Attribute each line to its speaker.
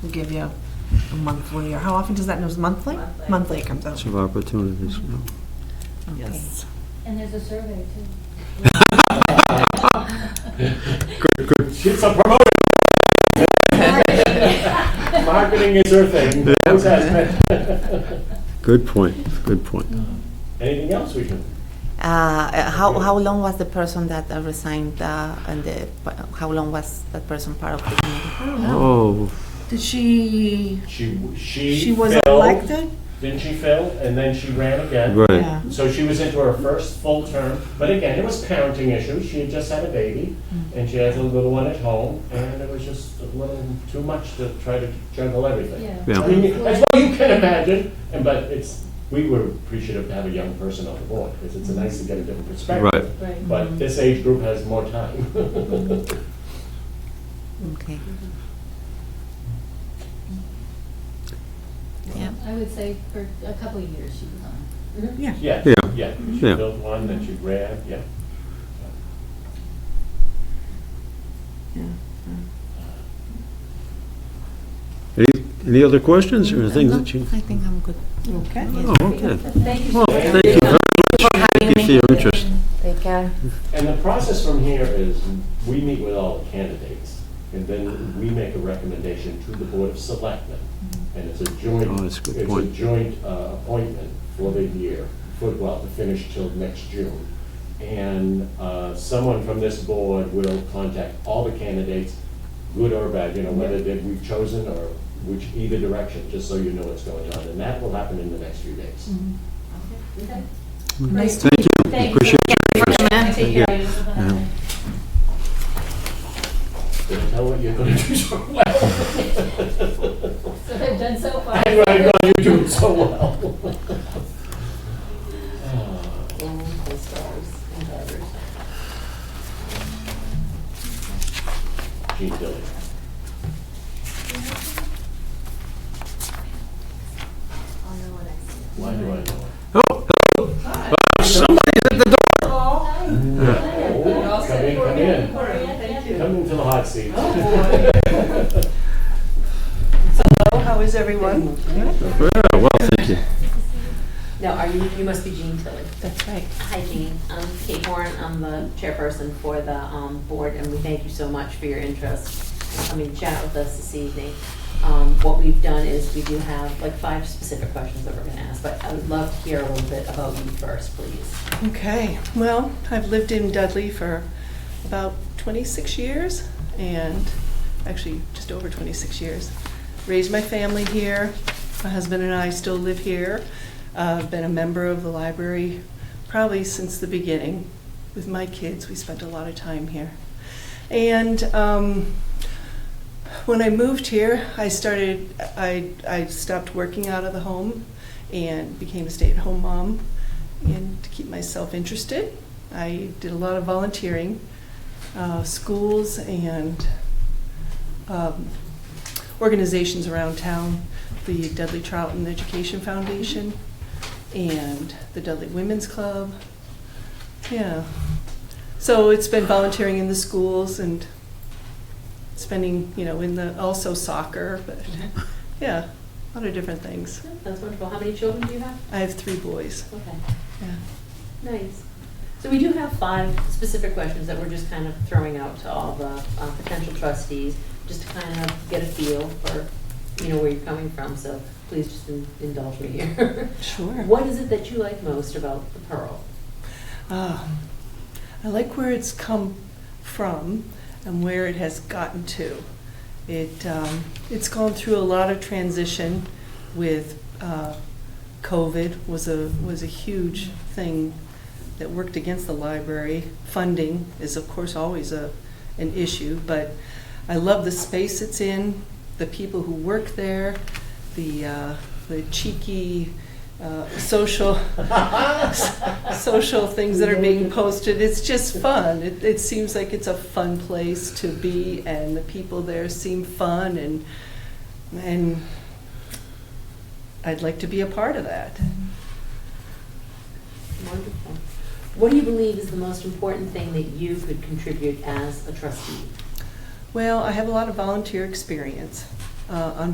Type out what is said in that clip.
Speaker 1: give you a monthly, or how often does that, news monthly?
Speaker 2: Monthly.
Speaker 1: Monthly it comes out.
Speaker 3: of opportunities. you know.
Speaker 1: Okay.
Speaker 4: Yes.
Speaker 2: And there's a survey too.
Speaker 5: Get some promoted. Marketing is her thing. Those aspects.
Speaker 3: Good point, good point.
Speaker 5: Anything else we can?
Speaker 4: Uh, how, how long was the person that uh, resigned uh, and the, how long was that person part of the committee?
Speaker 1: I don't know.
Speaker 3: Oh,
Speaker 1: Did she,
Speaker 5: She, she.
Speaker 1: she was
Speaker 5: fell,
Speaker 1: elected?
Speaker 5: Didn't she fail? And then she ran again.
Speaker 3: right.
Speaker 5: So she was into her first full term, but again, it was parenting issues. She had just had a baby,
Speaker 1: Mm.
Speaker 5: and she had a little one at home, and it was just a little too much to try to juggle everything.
Speaker 2: Yeah.
Speaker 3: Yeah.
Speaker 5: I mean, as well you can imagine, and but it's, we were appreciative to have a young person on the board, because it's nice to get a different
Speaker 3: Right.
Speaker 5: perspective.
Speaker 2: Right.
Speaker 5: But this age group has more time.
Speaker 4: Okay. Yeah.
Speaker 2: I would say for a couple of years she was on.
Speaker 1: Yeah.
Speaker 5: Yeah,
Speaker 3: Yeah.
Speaker 5: yeah. She
Speaker 3: Yeah.
Speaker 5: built one, then she ran, yeah.
Speaker 3: Any, any other questions or things that you?
Speaker 4: Mm, I think I'm good.
Speaker 1: Okay.
Speaker 3: Oh, okay.
Speaker 2: Thank you.
Speaker 3: Well, thank you very much. Thank you for your interest.
Speaker 4: Take care.
Speaker 5: And the process from here is, we meet with all the candidates, and then we make a recommendation to the Board of Selectmen. And it's a joint,
Speaker 3: Oh, that's
Speaker 5: it's
Speaker 3: a good
Speaker 5: a
Speaker 3: point.
Speaker 5: joint uh, appointment for the year, for, well, to finish till next June. And uh, someone from this board will contact all the candidates, good or bad, you know, whether that we've chosen or which, either direction, just so you know what's going on. And that will happen in the next few days.
Speaker 1: Nice to
Speaker 3: Thank you,
Speaker 2: Thank you.
Speaker 3: appreciate
Speaker 2: Take care.
Speaker 5: Did I tell what you're gonna do so well?
Speaker 2: So I've done so far.
Speaker 5: I know you're doing so well. Gene Dilley. Why do I know?
Speaker 3: Oh,
Speaker 5: Oh, Come in, come in.
Speaker 2: Thank you. Oh,
Speaker 5: Come into the hot seat.
Speaker 6: How is everyone?
Speaker 3: yeah, well, thank you.
Speaker 6: Now, are you, you must be Jean Tilly.
Speaker 4: That's right.
Speaker 7: Hi, Jean. I'm Kate Warren. I'm the chairperson for the um, board, and we thank you so much for your interest in coming to chat with us this evening. Um, What we've done is we do have like five specific questions that we're going to ask, but I would love to hear a little bit about you first, please.
Speaker 6: Okay, well, I've lived in Dudley for about 26 years, and actually just over 26 years. Raised my family here. My husband and I still live here. Uh, I've been a member of the library probably since the beginning. With my kids, we spent a lot of time here. And um, when I moved here, I started, I, I stopped working out of the home and became a stay at home mom. And to keep myself interested, I did a lot of volunteering, uh, schools and um, organizations around town, the Dudley Trouton Education Foundation and the Dudley Women's Club. Yeah. So it's been volunteering in the schools and spending, you know, in the, also soccer, but, yeah, a lot of different things.
Speaker 7: That's wonderful. How many children do you have?
Speaker 6: I have three boys,
Speaker 7: Okay.
Speaker 6: yeah.
Speaker 7: Nice. So we do have five specific questions that we're just kind of throwing out to all the uh, potential trustees, just to kind of get a feel for, you know, where you're coming from, so please just in- indulge me here.
Speaker 6: Sure.
Speaker 7: What is it that you like most about the Pearl?
Speaker 6: Ah, I like where it's come from and where it has gotten to. It, um, it's gone through a lot of transition with uh, COVID was a, was a huge thing that worked against the library. Funding is of course always a, an issue, but I love the space it's in, the people who work there, the, uh, the cheeky uh, social, social things that are being posted. It's just fun. It, it seems like it's a fun place to be, and the people there seem fun, and and I'd like to be a part of that.
Speaker 7: Wonderful. What do you believe is the most important thing that you could contribute as a trustee?
Speaker 6: Well, I have a lot of volunteer experience uh, on